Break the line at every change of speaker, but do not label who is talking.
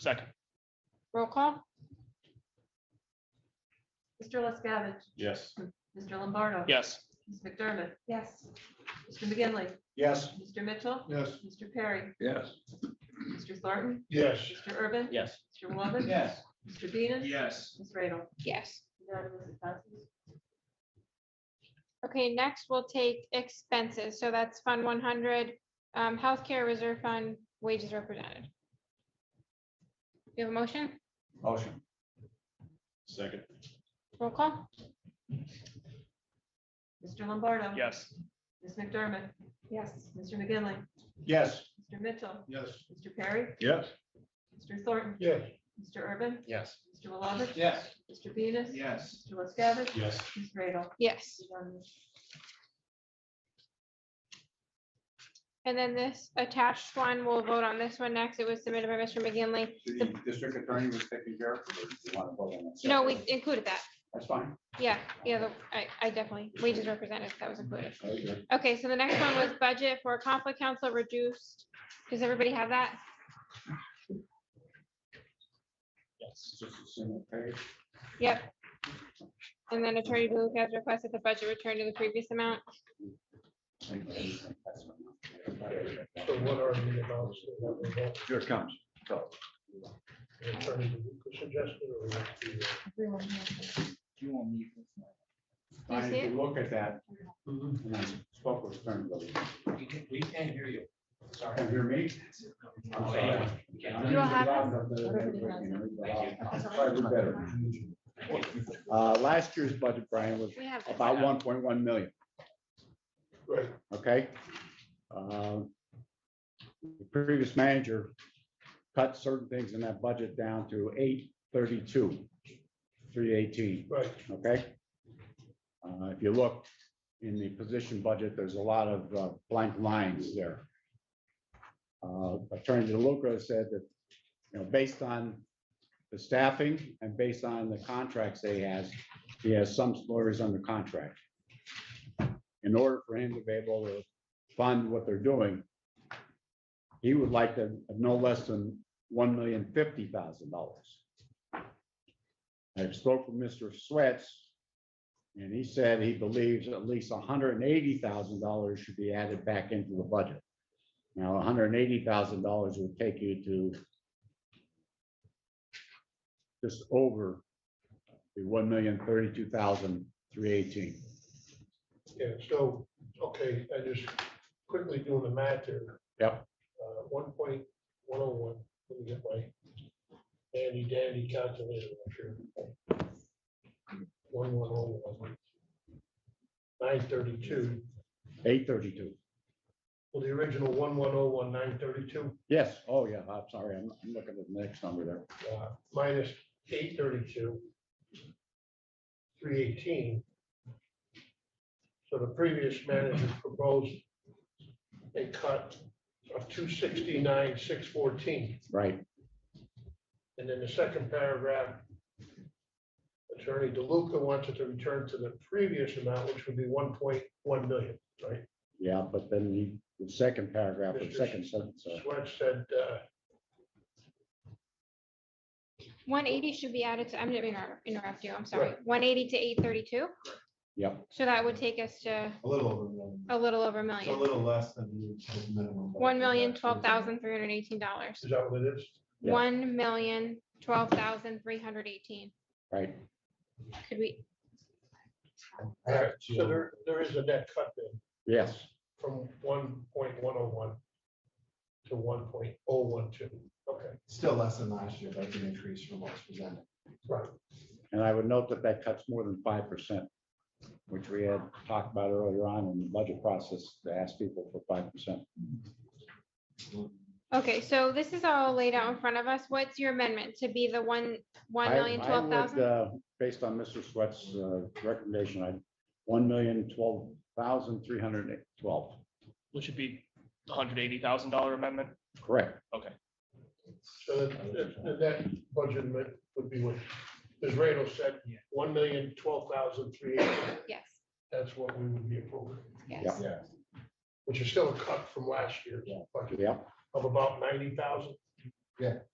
Second.
Roll call?
Mr. LaScavitch.
Yes.
Mr. Lombardo.
Yes.
Ms. McDermott.
Yes.
Mr. McGinley.
Yes.
Mr. Mitchell.
Yes.
Mr. Perry.
Yes.
Mr. Thornton.
Yes.
Mr. Urban.
Yes.
Mr. Wobbin.
Yes.
Mr. Venus.
Yes.
Ms. Radel.
Yes.
Unanimous, it passes.
Okay, next we'll take expenses. So that's Fund one hundred, um, healthcare reserve fund, wages represented. You have a motion?
Motion. Second.
Roll call?
Mr. Lombardo.
Yes.
Ms. McDermott.
Yes.
Mr. McGinley.
Yes.
Mr. Mitchell.
Yes.
Mr. Perry.
Yes.
Mr. Thornton.
Yes.
Mr. Urban.
Yes.
Mr. Lovett.
Yes.
Mr. Venus.
Yes.
Mr. LaScavitch.
Yes.
Ms. Radel.
Yes.
Unanimous.
And then this attached one, we'll vote on this one next. It was submitted by Mr. McGinley.
The district attorney was taking care of it.
No, we included that.
That's fine.
Yeah, yeah, the- I, I definitely, wages represented, that was included.
Okay.
Okay, so the next one was budget for conflict council reduced. Does everybody have that?
Yes.
Just a single page.
Yep. And then Attorney Blue has requested the budget return to the previous amount.
So what are the amounts that we're going
Here it comes. So,
to attorney suggested or we have to, uh,
Do you
I
see it?
need to look at that. and I Spoke with Attorney Williams.
We can't hear you.
Can you hear me? I'm
Oh,
sorry.
You don't have
Probably better. Uh, last year's budget, Brian, was
We have. this.
about one point one million.
right,
okay? Um, The previous manager cut certain things in that budget down to eight thirty-two, three eighteen,
right,
okay? Uh, If you look in the position budget, there's a lot of uh, blank lines there. Uh, Attorney DeLuca said that, you know, based on the staffing and based on the contracts they has, he has some lawyers under contract. In order for him to be able to fund what they're doing, he would like to have no less than one million fifty thousand dollars. I spoke with Mr. Swets, and he said he believes at least hundred and eighty thousand dollars should be added back into the budget. Now, hundred and eighty thousand dollars would take you to just over the one million thirty-two thousand three eighteen.
yeah, so, okay, I just quickly doing the math here.
Yep.
Uh, one point one oh one, let me get my dandy dandy calculator up here. One one oh one. Nine thirty-two,
Eight thirty-two.
well, the original one one oh one, nine thirty-two,
Yes, oh yeah, I'm sorry, I'm I'm looking at the next number there.
uh, minus eight thirty-two. Three eighteen. So the previous manager proposed a cut of two sixty-nine, six fourteen,
Right,
and then the second paragraph. Attorney DeLuca wants it to return to the previous amount, which would be one point one million, right?
yeah, but then the- the second paragraph, the
Mr.
second sentence. uh,
Swett said, uh,
One eighty should be added to, I'm gonna inter- interrupt you, I'm sorry. One eighty to eight thirty-two,
Yep,
so that would take us to
A little over a million.
a little over Oh, a
It's a
million.
little less than the minimum.
One million, twelve thousand, three hundred and eighteen dollars.
is that what it is?
Yeah.
One million, twelve thousand, three hundred eighteen.
right,
Could we,
All right, so there, there is a net cut then.
yes,
from one point one oh one to one point oh one two. Okay,
Still less than last year, that's an increase from what's presented.
right.
and I would note that that cuts more than five percent, which we had talked about earlier on in the budget process, to ask people for five percent.
okay, so this is all laid out in front of us. What's your amendment to be the one, one million, twelve thousand?
uh, Based on Mr. Swett's uh, recommendation, I, one million, twelve thousand, three hundred and twelve,
Which would be hundred eighty thousand dollar amendment.
correct,
So the, the, the net budget amendment would be what, as Randall said, one million twelve thousand three eighty.
Yes,
That's what we would be approving,
yes.
Yeah.
which is still a cut from last year's budget
yeah.
of about ninety thousand.
Yeah.